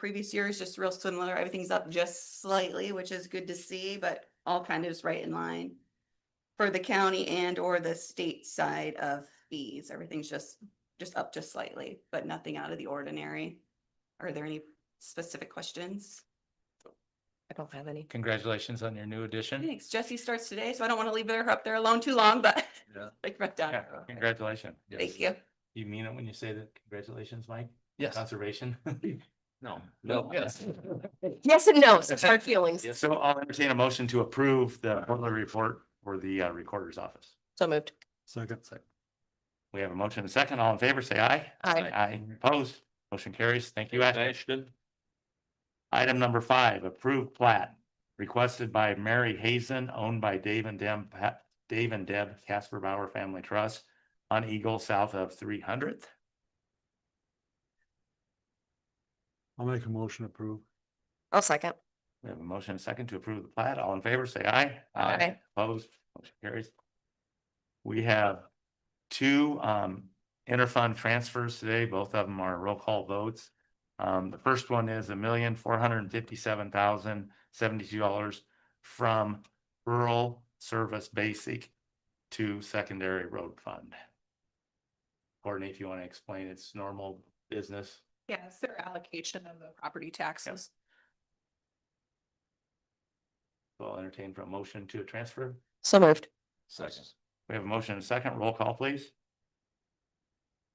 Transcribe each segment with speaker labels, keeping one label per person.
Speaker 1: previous years, just real similar. Everything's up just slightly, which is good to see, but all kind of is right in line. For the county and or the state side of fees, everything's just, just up just slightly, but nothing out of the ordinary. Are there any specific questions?
Speaker 2: I don't have any.
Speaker 3: Congratulations on your new addition.
Speaker 1: Thanks. Jesse starts today, so I don't want to leave her up there alone too long, but.
Speaker 3: Yeah.
Speaker 1: Like, right down.
Speaker 3: Yeah, congratulations.
Speaker 1: Thank you.
Speaker 3: You mean it when you say that, congratulations, Mike?
Speaker 4: Yes.
Speaker 3: Conservation?
Speaker 4: No.
Speaker 3: No.
Speaker 4: Yes.
Speaker 2: Yes and no, it's hard feelings.
Speaker 3: So I'll entertain a motion to approve the quarterly report for the uh, recorder's office.
Speaker 2: So moved.
Speaker 4: Second.
Speaker 3: We have a motion and a second. All in favor, say aye.
Speaker 2: Aye.
Speaker 3: Aye, opposed. Motion carries. Thank you, Ashley.
Speaker 4: Ashton.
Speaker 3: Item number five, approved plat requested by Mary Hazen, owned by Dave and Deb, Dave and Deb Casper Bauer Family Trust on Eagle south of three hundredth.
Speaker 4: I'll make a motion to approve.
Speaker 2: I'll second.
Speaker 3: We have a motion and a second to approve the plat. All in favor, say aye.
Speaker 2: Aye.
Speaker 3: Opposed, motion carries. We have two um interfund transfers today. Both of them are roll call votes. Um, the first one is a million four hundred and fifty-seven thousand seventy-two dollars from rural service basic to secondary road fund. Courtney, if you want to explain its normal business.
Speaker 5: Yeah, it's their allocation of the property taxes.
Speaker 3: So I'll entertain for a motion to transfer.
Speaker 2: So moved.
Speaker 4: Second.
Speaker 3: We have a motion and a second. Roll call, please.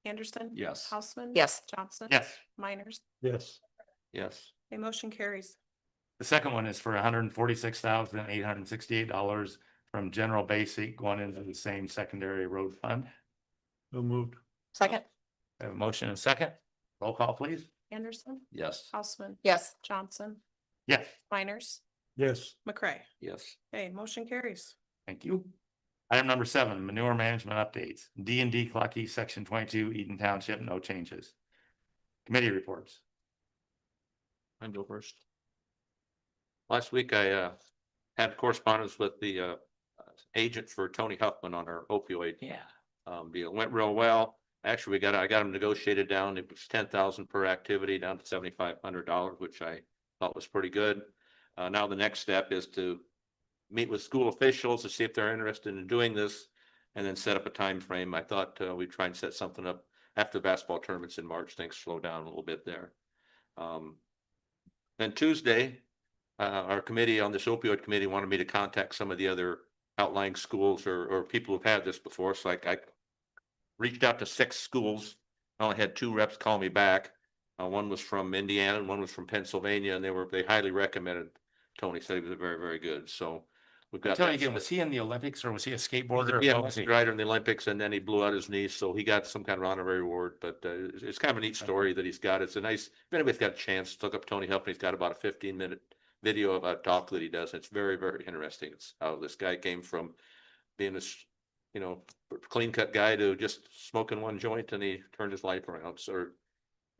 Speaker 5: Anderson?
Speaker 4: Yes.
Speaker 5: Houseman?
Speaker 2: Yes.
Speaker 5: Johnson?
Speaker 3: Yes.
Speaker 5: Miners?
Speaker 4: Yes. Yes.
Speaker 5: A motion carries.
Speaker 3: The second one is for hundred and forty-six thousand, eight hundred and sixty-eight dollars from general basic going into the same secondary road fund.
Speaker 4: So moved.
Speaker 2: Second.
Speaker 3: I Have a motion and a second. Roll call, please.
Speaker 5: Anderson?
Speaker 4: Yes.
Speaker 5: Houseman?
Speaker 2: Yes.
Speaker 5: Johnson?
Speaker 3: Yes,
Speaker 5: Miners?
Speaker 4: Yes.
Speaker 5: McCray?
Speaker 4: Yes.
Speaker 5: Hey, motion carries.
Speaker 3: thank you. Item number seven, manure management updates. D and D Clucky, section twenty-two, Eden Township, no changes. Committee reports.
Speaker 6: I go first. Last week I uh had correspondence with the uh agent for Tony Huffman on our opioid.
Speaker 3: Yeah.
Speaker 6: Um, deal went real well. Actually, we got, I got him negotiated down. It was ten thousand per activity down to seventy-five hundred dollars, which I thought was pretty good. Uh, now the next step is to meet with school officials to see if they're interested in doing this and then set up a time frame. I thought uh, we'd try and set something up after the basketball tournaments in March. Things slow down a little bit there. Um, then Tuesday, uh, our committee on this opioid committee wanted me to contact some of the other outlying schools or, or people who've had this before. So like I reached out to six schools. I only had two reps call me back. Uh, one was from Indiana and one was from Pennsylvania and they were, they highly recommended. Tony said he was very, very good. So we've got.
Speaker 3: Tell me
Speaker 6: that
Speaker 3: again, was he in the Olympics or was he a skateboarder?
Speaker 6: yeah,
Speaker 3: What was he?
Speaker 6: rider in the Olympics and then he blew out his knee, so he got some kind of honorary award, but uh, it's, it's kind of a neat story that he's got. It's a nice, if anybody's got a chance, look up Tony Huffman. He's got about a fifteen minute video of a talk that he does. It's very, very interesting. It's how this guy came from being a, s- you know, clean cut guy to just smoking one joint and he turned his life around, so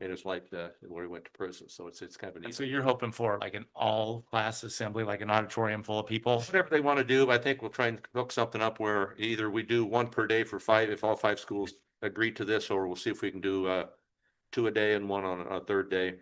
Speaker 6: made his life uh, where he went to prison. So it's, it's kind of a
Speaker 3: And
Speaker 6: neat.
Speaker 3: so you're hoping for like an all-class assembly, like an auditorium full of people?
Speaker 6: Whatever they want to do, but I think we'll try and hook something up where either we do one per day for five, if all five schools agree to this, or we'll see if we can do uh. Two a day and one on a third day.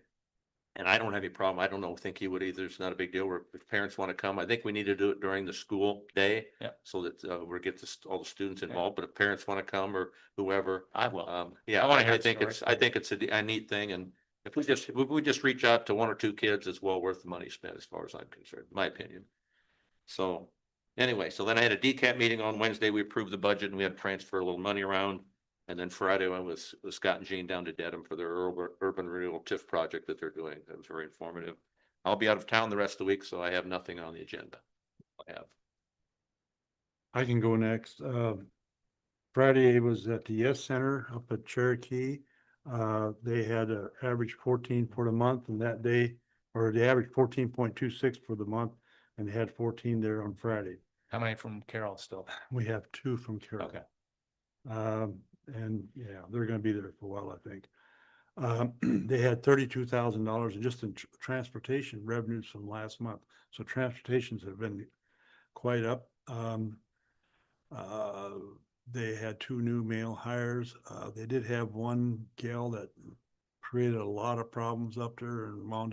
Speaker 6: And I don't have any problem. I don't know, think he would either. It's not a big deal. Where if parents want to come, I think we need to do it during the school day.
Speaker 3: Yeah.
Speaker 6: So that uh we get this, all the students
Speaker 3: Yeah.
Speaker 6: involved, but if parents want to come or whoever,
Speaker 3: I will.
Speaker 6: um, yeah,
Speaker 3: I wanna hear
Speaker 6: I I
Speaker 3: the
Speaker 6: think
Speaker 3: story.
Speaker 6: it's, I think it's a, a neat thing and. If we just, if we just reach out to one or two kids, it's well worth the money spent as far as I'm concerned, my opinion. So anyway, so then I had a decap meeting on Wednesday. We approved the budget and we had to transfer a little money around. And then Friday, I was with Scott and Jean down to Dedham for their urban, urban renewal TIF project that they're doing. It was very informative. I'll be out of town the rest of the week, so I have nothing on the agenda. I have.
Speaker 4: I can go next. Um, Friday was at the Yes Center up at Cherokee. Uh, they had an average fourteen for the month and that day, or the average fourteen point two six for the month. And they had fourteen there on Friday.
Speaker 3: How many from Carroll still?
Speaker 4: We have two from Carroll.
Speaker 3: Okay.
Speaker 4: Um, and yeah, they're gonna be there for a while, I think. Um, they had thirty-two thousand dollars just in tr- transportation revenues from last month. So transportations have been quite up. Um, uh, they had two new male hires. Uh, they did have one gal that created a lot of problems up there and wound up.